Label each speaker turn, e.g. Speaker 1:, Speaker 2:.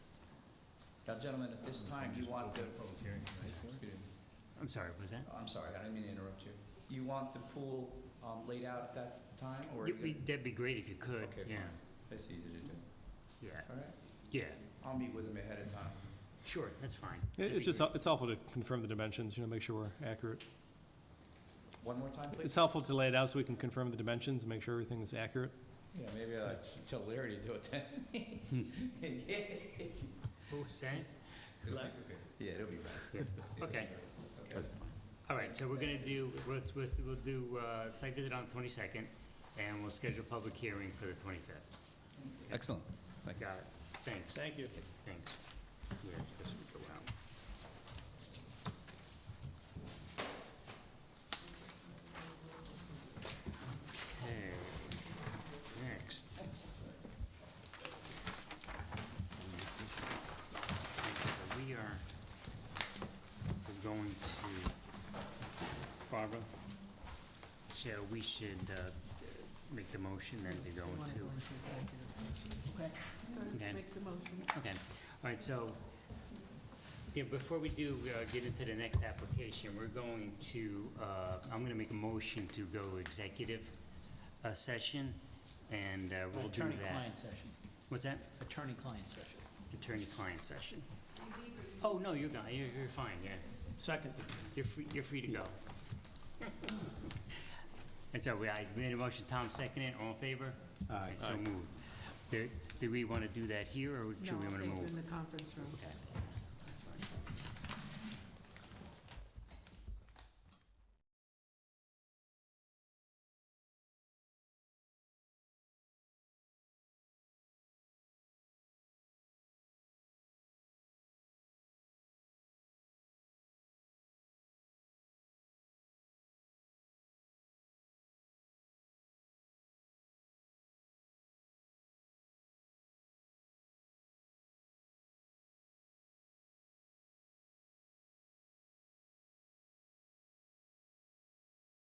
Speaker 1: Now, gentlemen, at this time, you want the... Public hearing.
Speaker 2: I'm sorry, was that?
Speaker 1: I'm sorry, I didn't mean to interrupt you. You want the pool um, laid out at that time, or...
Speaker 2: It'd be- That'd be great if you could,
Speaker 1: Okay,
Speaker 2: yeah,
Speaker 1: fine. That's easy to do.
Speaker 2: yeah,
Speaker 1: All right,
Speaker 2: yeah,
Speaker 1: I'll meet with him ahead of time.
Speaker 2: sure, that's fine.
Speaker 3: It-
Speaker 2: That'd
Speaker 3: It's
Speaker 2: be
Speaker 3: just,
Speaker 2: great.
Speaker 3: hel- it's helpful to confirm the dimensions, you know, make sure we're accurate.
Speaker 1: One more time,
Speaker 3: It's
Speaker 1: please?
Speaker 3: helpful to lay it out so we can confirm the dimensions and make sure everything is accurate.
Speaker 1: Yeah, maybe I should tell Larry to do it
Speaker 2: Hmm.
Speaker 1: then.
Speaker 2: What was that?
Speaker 1: Good luck. Yeah, it'll be right.
Speaker 2: Okay,
Speaker 1: Okay.
Speaker 2: all right, so we're gonna do, we'll, we'll we'll do, uh, site visit on the twenty-second, and we'll schedule a public hearing for the twenty-fifth.
Speaker 1: Excellent. Thank
Speaker 2: Got it, thanks.
Speaker 3: Thank you.
Speaker 2: Thanks. Yeah, it's supposed to go out. Okay, next. Okay, so We are, we're going to, Barbara, so we should uh, make the motion then to go
Speaker 4: We wanna
Speaker 2: into.
Speaker 4: go into executive session. Okay.
Speaker 2: Okay.
Speaker 4: First, make the motion.
Speaker 2: Okay, all right, so, yeah, before we do uh, get into the next application, we're going to, uh, I'm going to make a motion to go executive uh, session, and uh, we'll do that.
Speaker 5: Attorney-client session,
Speaker 2: What's that?
Speaker 5: attorney-client session.
Speaker 2: Attorney-client session. Oh, no, you're gone, you're, you're fine, yeah,
Speaker 5: Second.
Speaker 2: you're free, you're free to go. And so we, I made a motion, Tom seconded, it. all in favor? Aye. So moved. Do, do we want to do that here, or should we want to
Speaker 4: No, I'll take you
Speaker 2: move?
Speaker 4: in the conference room.
Speaker 2: Okay.